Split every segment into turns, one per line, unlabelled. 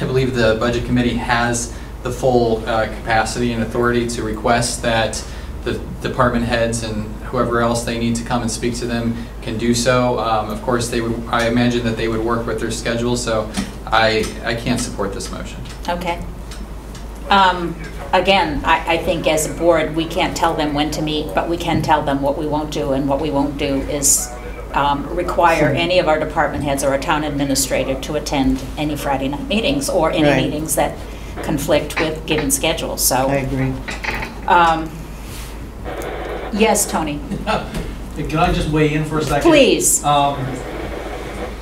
I believe the Budget Committee has the full uh, capacity and authority to request that the department heads and whoever else they need to come and speak to them can do so. Um, Of course, they would, I imagine that they would work with their schedule, so I, I can't support this motion.
Okay. Um, Again, I, I think as a board, we can't tell them when to meet, but we can tell them what we won't do, and what we won't do is um, require any of our department heads or our town administrator to attend any Friday night meetings or
Right.
any meetings that conflict with given schedules, so.
I agree.
um, Yes, Tony,
Can I just weigh in for a second?
Please.
Um,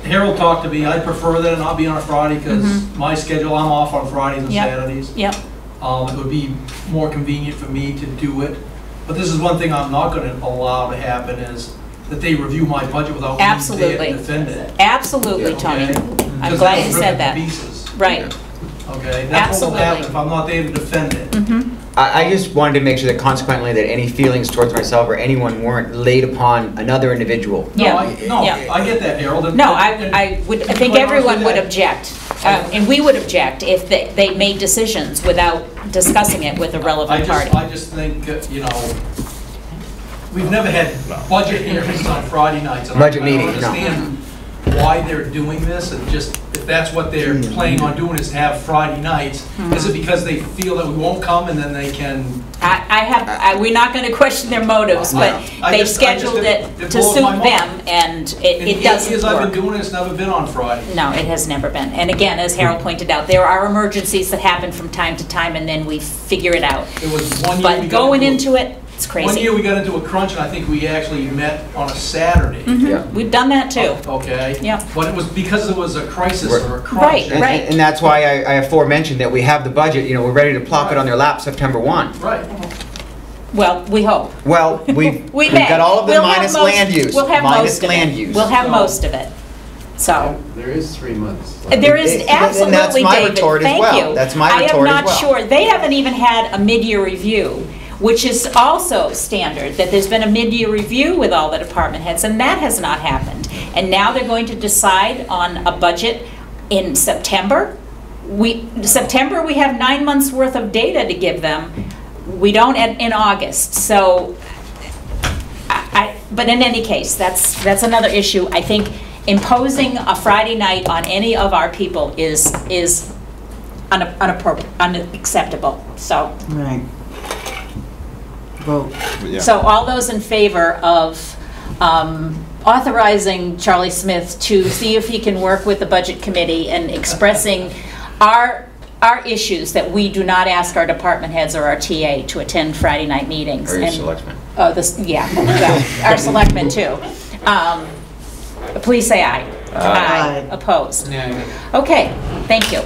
Harold talked to me, I prefer that it not be on a Friday because
Mm-hmm.
my schedule, I'm off on Fridays and
Yep.
Saturdays.
yep,
Um, It would be more convenient for me to do it. But this is one thing I'm not going to allow to happen is that they review my budget without me there
Absolutely.
to defend it.
absolutely, Tony. I'm glad you said that. Right,
Okay, that's what will
Absolutely. Mm-hmm.
happen if I'm not there to defend it.
I, I just wanted to make sure that consequently that any feelings towards myself or anyone weren't laid upon another individual.
No,
yeah.
I- No,
yeah.
I get that, Harold. and-
No, I,
and-
I would, I
and
think
quite honestly,
everyone would
that-
object, um, and we would object if they, they made decisions without discussing it with a
I
relevant
just,
party.
I just think, uh, you know, we've never had budget hearings on Friday nights. and I-
Budget meeting, no.
I don't understand why they're doing this, and just, if that's what they're planning on doing is have Friday nights,
Hmm.
is it because they feel that we won't come and then they can?
I, I have, I, we're not gonna question their motives, but
I
they've
just- I just-
scheduled
it-
it
it
to
blows
suit
my mind.
them, and it,
In eight
it doesn't
years I've been
work.
doing it, it's never been on Friday.
No, it has never been, and again, as Harold pointed out, there are emergencies that happen from time to time, and then we figure it out.
It was one year. we
But
got
going
a-
into it, it's
One
crazy.
year we got into a crunch, and I think we actually met on a Saturday.
Yeah.
Mhm, We've done that too.
Okay?
Yeah.
But it was because it was a crisis or a crunch.
Right,
And, and, and that's why I, I aforementioned that we have the budget, you know, we're ready to plop it on their lap September 1.
Right.
Well, we hope.
Well, we've,
We
we've
may.
got all of it
We'll have
minus
most-
land use.
We'll have most
Minus
of
land
it.
use.
We'll have
So-
most of it. So, Uh,
There is three months. left.
there is
And that's
absolutely, David,
my
thank
retort as well.
you.
That's my retort as
I am not
well.
sure, they haven't even had a mid-year review, which is also standard, that there's been a mid-year review with all the department heads, and that has not happened. And now they're going to decide on a budget in September? We, September, we have nine months' worth of data to give them. We don't in in August, so I, I- but in any case, that's, that's another issue. I think imposing a Friday night on any of our people is, is una- unappropri- unacceptable, so.
Right. Vote.
So all those in favor of um, authorizing Charlie Smith to see if he can work with the Budget Committee and expressing our, our issues that we do not ask our department heads or our TA to attend Friday night meetings.
Or your
and-
selectmen.
Oh, this, yeah, well, our selectmen too. Um, Please say aye. Aye. Opposed? Okay, thank you.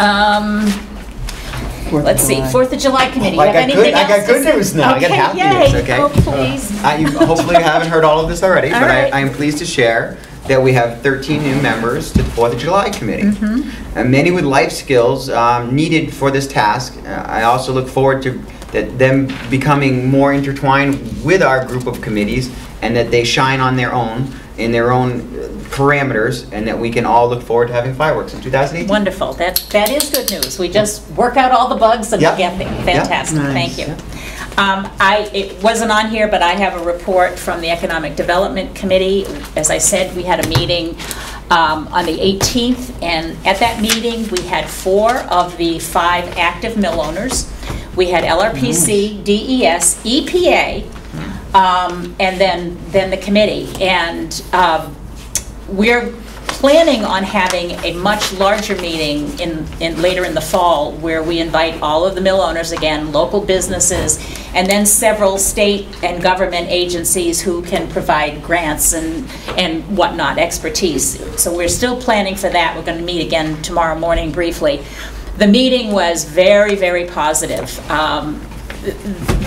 Um,
Fourth of
Let's see,
July.
Fourth of July committee, you
I
have
got good-
anything
I
else
got
to
good
say?
news now. I got happy news, okay?
yay. Oh, please.
I, you- hopefully you haven't heard all of this already,
All
but I,
right.
I am pleased to share that we have 13 new members to the Fourth of July Committee,
Mm-hmm.
and many with life skills um, needed for this task. Uh, I also look forward to that them becoming more intertwined with our group of committees, and that they shine on their own in their own uh, parameters, and that we can all look forward to having fireworks in 2018.
Wonderful, that, that is good news. We just work out all the bugs and we
Yeah.
get there. Fantastic,
Nice.
thank you. Um, I, it wasn't on here, but I have a report from the Economic Development Committee. As I said, we had a meeting um, on the 18th, and at that meeting, we had four of the five active mill owners. We had LRPC, DES, EPA, um, and then, then the committee. And um, we're planning on having a much larger meeting in, in, later in the fall, where we invite all of the mill owners again, local businesses, and then several state and government agencies who can provide grants and, and whatnot, expertise. So we're still planning for that. We're gonna meet again tomorrow morning briefly. The meeting was very, very positive. Um,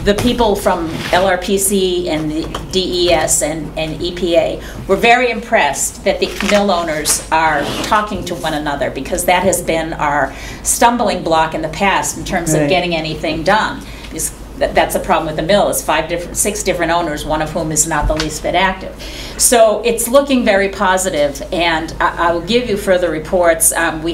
the people from LRPC and the DES and, and EPA were very impressed that the mill owners are talking to one another because that has been our stumbling block in the past in terms of
Right.
getting anything done. Is- that- That's a problem with the mill, is five different, six different owners, one of whom is not the least bit active. So it's looking very positive, and I I will give you further reports. Um, We